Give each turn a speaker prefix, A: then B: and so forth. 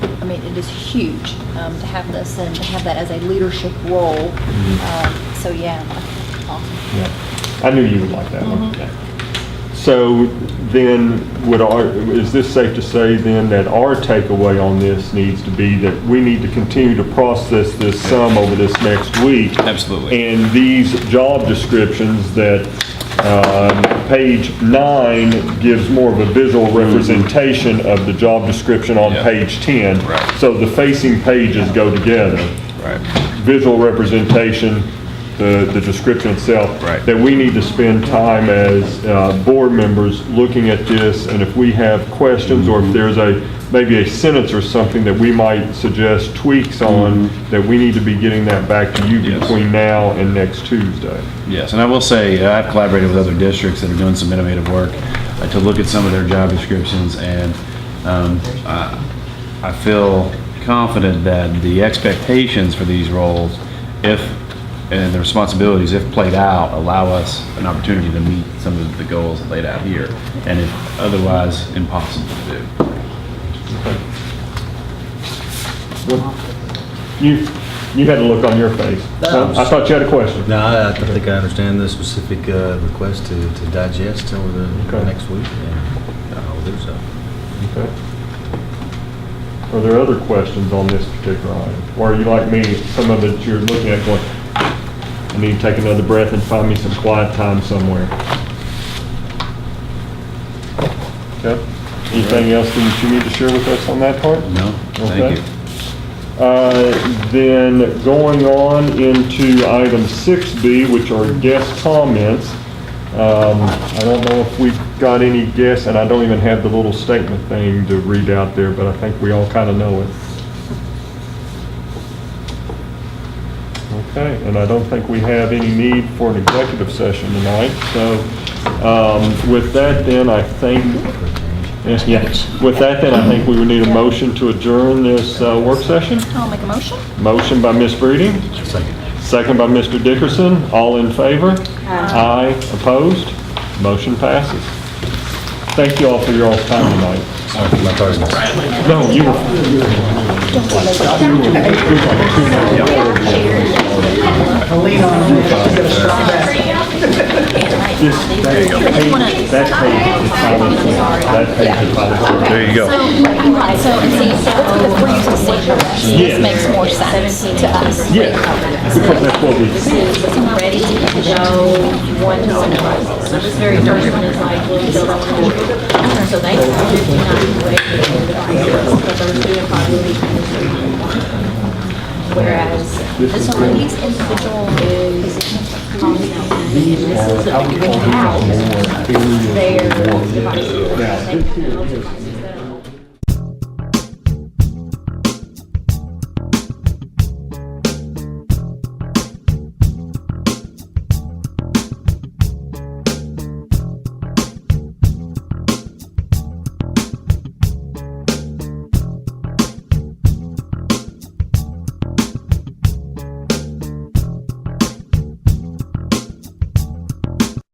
A: I mean, it is huge um, to have this and to have that as a leadership role.
B: Mhm.
A: Um, So, yeah, awesome.
B: Yeah. I knew you would like that one.
A: Mhm.
B: So then, would our, is this safe to say then that our takeaway on this needs to be that we need to continue to process this sum over this next week?
C: Absolutely.
B: And these job descriptions that, um, page nine gives more of a visual representation of the job description on
C: Mm-hmm. Yeah.
B: page 10.
C: Right.
B: So the facing pages go together
C: Right.
B: visual representation, the, the description itself.
C: Right.
B: That we need to spend time as, uh, board members looking at this, and if we have questions, or
C: Mm-hmm.
B: if there's a, maybe a sentence or something that we might suggest tweaks on, that we need to be getting that back to you
C: Mm-hmm. Yes.
B: between now and next Tuesday.
C: Yes, and I will say, uh, I've collaborated with other districts that are doing some innovative work uh, to look at some of their job descriptions, and um, I I feel confident that the expectations for these roles, if, and the responsibilities, if played out, allow us an opportunity to meet some of the goals laid out here, and if otherwise impossible to do.
B: You, you had a look on your face.
D: No.
B: I thought you had a question.
D: No, I I think I understand the specific uh, request to to digest over the
B: Okay.
D: next week, and uh, I'll do so.
B: Okay. Are there other questions on this particular item? Or are you like me, some of it you're looking at going, I need to take another breath and find me some quiet time somewhere? Okay. Anything else that you need to share with us on that part?
C: No?
B: Okay.
C: Thank you.
B: Uh, Then going on into item 6B, which are guest comments. Um, I don't know if we've got any guests, and I don't even have the little statement thing to read out there, but I think we all kind of know it. Okay, and I don't think we have any need for an executive session tonight, so um, with that then, I think,
D: uh,
B: yeah, with that then, I think we would need a motion to adjourn this uh, work session.
A: I'll make a motion.
B: Motion by Ms. Breeding,
D: Second.
B: second by Mr. Dickerson. All in favor? Aye. opposed? Motion passes. Thank you all for your all's time tonight.
D: My partner's-
B: No, you were... That page is probably, that page is probably...
C: There you go.
A: Right, so, and see, so that's because we're using seizures.
B: Yes.
A: This makes more sense to us.
B: Yes, because that's what we...
A: I'm ready to go one to one. So this very first one is like, we'll build up. So they. Whereas this one, each individual is. Their devices. They can build devices.